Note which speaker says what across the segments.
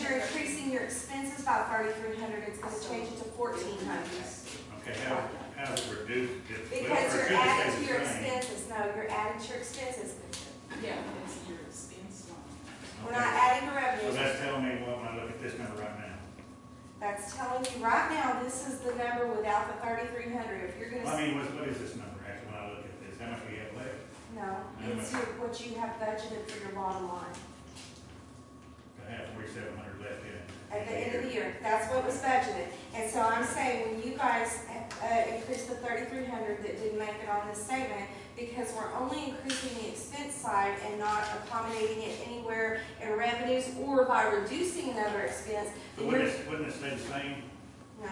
Speaker 1: you're increasing your expenses by thirty-three hundred, it's gonna change it to fourteen hundred.
Speaker 2: Okay, how, how to reduce it?
Speaker 1: Because you're adding to your expenses, no, you're adding to your expenses.
Speaker 3: Yeah, that's your expense line.
Speaker 1: We're not adding to
Speaker 2: So
Speaker 1: revenue.
Speaker 2: that's telling me what, when I look at this number right now.
Speaker 1: That's telling you right now, this is the number without the thirty-three hundred. If you're
Speaker 2: Well, I
Speaker 1: gonna,
Speaker 2: mean, what, what is this number actually, when I look at this? How much we have left?
Speaker 1: no, it's your- what you have budgeted for your bottom line.
Speaker 2: I have forty-seven hundred left in.
Speaker 1: At the end of the year, that's what was budgeted. And so I'm saying, when you guys, uh, increased the thirty-three hundred that didn't make it on this statement, because we're only increasing the expense side and not accommodating it anywhere in revenues or by reducing another expense,
Speaker 2: But
Speaker 1: then you're,
Speaker 2: wouldn't it, wouldn't it stay the same?
Speaker 1: no.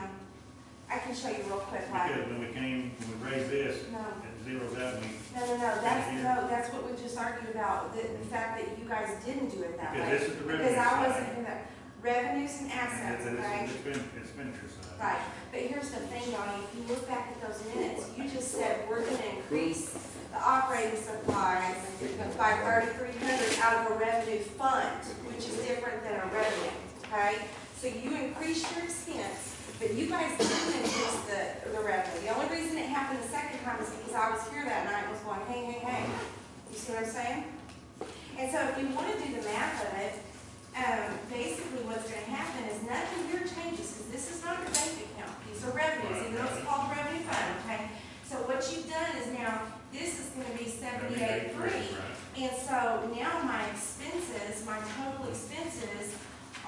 Speaker 1: I can show you real quick, why.
Speaker 2: Because when we came, when we raised this,
Speaker 1: No,
Speaker 2: it zeroes out, and we,
Speaker 1: no, no, no, that's,
Speaker 2: Here.
Speaker 1: no, that's what we just argued about, the the fact that you guys didn't do it that
Speaker 2: because
Speaker 1: way.
Speaker 2: this is the revenue
Speaker 1: Because I wasn't,
Speaker 2: side.
Speaker 1: in the revenues and
Speaker 2: And
Speaker 1: assets,
Speaker 2: this- this
Speaker 1: right?
Speaker 2: is the expen- expenditure side.
Speaker 1: Right, but here's the thing, Donnie, if you look back at those minutes, you just said we're gonna increase the operating supplies by thirty-three hundred out of a revenue fund, which is different than a revenue, okay? So you increased your expense, but you guys didn't increase the, the revenue. The only reason it happened the second time is because I was here that night and was going, hey, hey, hey. You see what I'm saying? And so if you wanna do the math of it, um, basically what's gonna happen is nothing here changes, because this is not your bank account, these are revenues, even though it's called revenue fund, okay? So what you've done is now, this is gonna be seventy-eight three,
Speaker 2: Right.
Speaker 1: and so now my expenses, my total expenses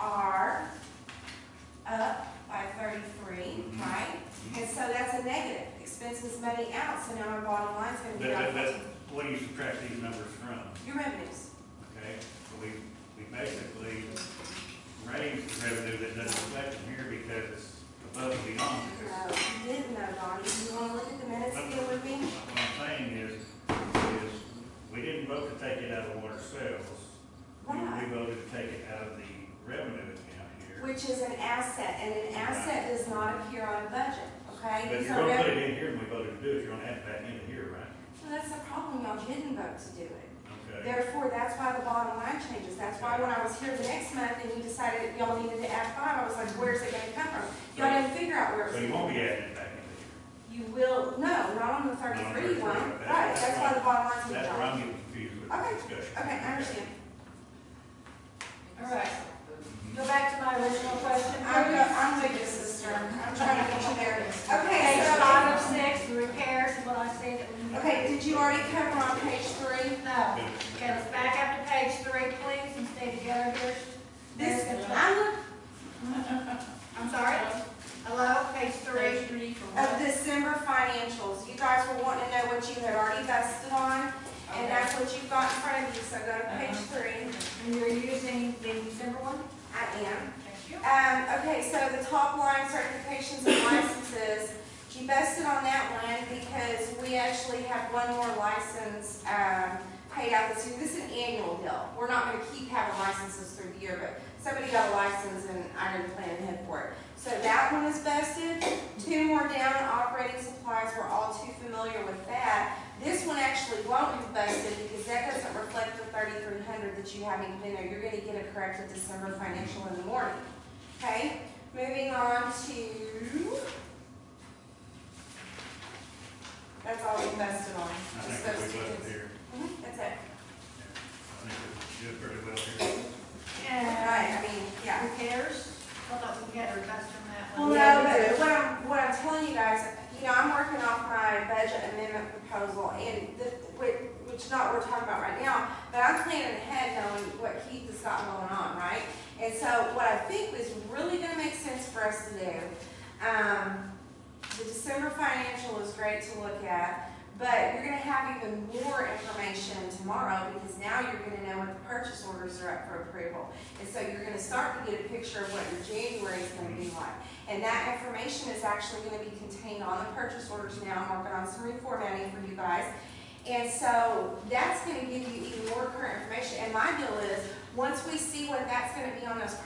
Speaker 1: are up by thirty-three,
Speaker 2: Mhm.
Speaker 1: right? And so that's a negative, expenses money out, so now my bottom line's gonna be
Speaker 2: But, but, but
Speaker 1: down,
Speaker 2: what do you subtract these numbers from,
Speaker 1: your revenues.
Speaker 2: okay? So We, we basically raised the revenue that doesn't reflect in here because it's above and beyond.
Speaker 1: No,
Speaker 2: Because
Speaker 1: you didn't know, Donnie, you wanna look at the minutes again with me?
Speaker 2: What I'm saying is, is we didn't vote to take it out of water sales. We-
Speaker 1: Right.
Speaker 2: We voted to take it out of the revenue account here.
Speaker 1: Which is an asset, and an asset does not appear on a budget, okay?
Speaker 2: But
Speaker 1: These
Speaker 2: you're
Speaker 1: are
Speaker 2: gonna put
Speaker 1: rev-
Speaker 2: it in here and we voted to do it, you're gonna add it back into here, right?
Speaker 1: So that's the problem, y'all didn't vote to do it.
Speaker 2: Okay.
Speaker 1: Therefore, that's why the bottom line changes, that's why when I was here the next month and you decided y'all needed to add five, I was like, where's it gonna come from? Y'all didn't figure out where it was.
Speaker 2: So you won't be
Speaker 1: coming
Speaker 2: adding it back into here.
Speaker 1: from. You will, no, not on the thirty-three one,
Speaker 2: Not on the 33,
Speaker 1: right,
Speaker 2: that's
Speaker 1: that's why
Speaker 2: right.
Speaker 1: the bottom line's gonna
Speaker 2: That's where
Speaker 1: change.
Speaker 2: I'm getting confused with
Speaker 1: Okay.
Speaker 2: the discussion.
Speaker 1: Okay, I understand.
Speaker 3: All right.
Speaker 4: Go back to my original question.
Speaker 1: I'm, go- I'm with you, sister, I'm trying to get you there. Okay,
Speaker 4: Page
Speaker 1: so.
Speaker 4: five of six, the repairs, what I said that we.
Speaker 1: Okay, did you already cover on page three?
Speaker 4: No.
Speaker 2: Good.
Speaker 4: Okay, let's back up to page three, please, and stay together here.
Speaker 1: This,
Speaker 4: There's the-
Speaker 1: I look
Speaker 4: I'm sorry? Hello, page three?
Speaker 3: Page three for
Speaker 1: of
Speaker 3: what?
Speaker 1: December financials, you guys were wanting to know what you had already vested on, and
Speaker 3: Okay.
Speaker 1: that's what you've got in front of you, so go to page
Speaker 3: Uh-huh.
Speaker 1: three.
Speaker 4: And you're using the December one?
Speaker 1: I am.
Speaker 4: Thank you.
Speaker 1: Um, okay, so the top line, certifications and licenses, you vested on that one because we actually have one more license, um, paid out this year. This is an annual deal. We're not gonna keep having licenses through the year, but somebody got a license and I didn't plan ahead for it. So that one is vested. Two more down, operating supplies, we're all too familiar with that. This one actually won't be vested because that doesn't reflect the thirty-three hundred that you haven't been there. You're gonna get a corrected December financial in the morning. Okay, moving on to. That's all we invested on.
Speaker 2: I
Speaker 1: Just
Speaker 2: think
Speaker 1: those
Speaker 2: that
Speaker 1: two
Speaker 2: we left it
Speaker 1: things.
Speaker 2: here.
Speaker 1: Mhm, That's it.
Speaker 2: I think we did pretty well here.
Speaker 4: And
Speaker 1: Right, I mean, yeah.
Speaker 4: repairs, I thought we had a request from that
Speaker 1: Well,
Speaker 4: one.
Speaker 1: no,
Speaker 4: Yeah,
Speaker 1: but what I'm, what I'm telling you guys, you know, I'm working off my budget amendment proposal and the, which, which is not what we're talking about right now, but I'm planning ahead knowing what Keith has got going on, right? And so what I think is really gonna make sense for us to do, um, the December financial is great to look at, but you're gonna have even more information tomorrow because now you're gonna know what the purchase orders are up for approval. And so you're gonna start to get a picture of what your January is gonna be like. And that information is actually gonna be contained on the purchase orders now, I'm working on some reformatting for you guys. And so that's gonna give you even more current information, and my deal is, once we see what that's gonna be on those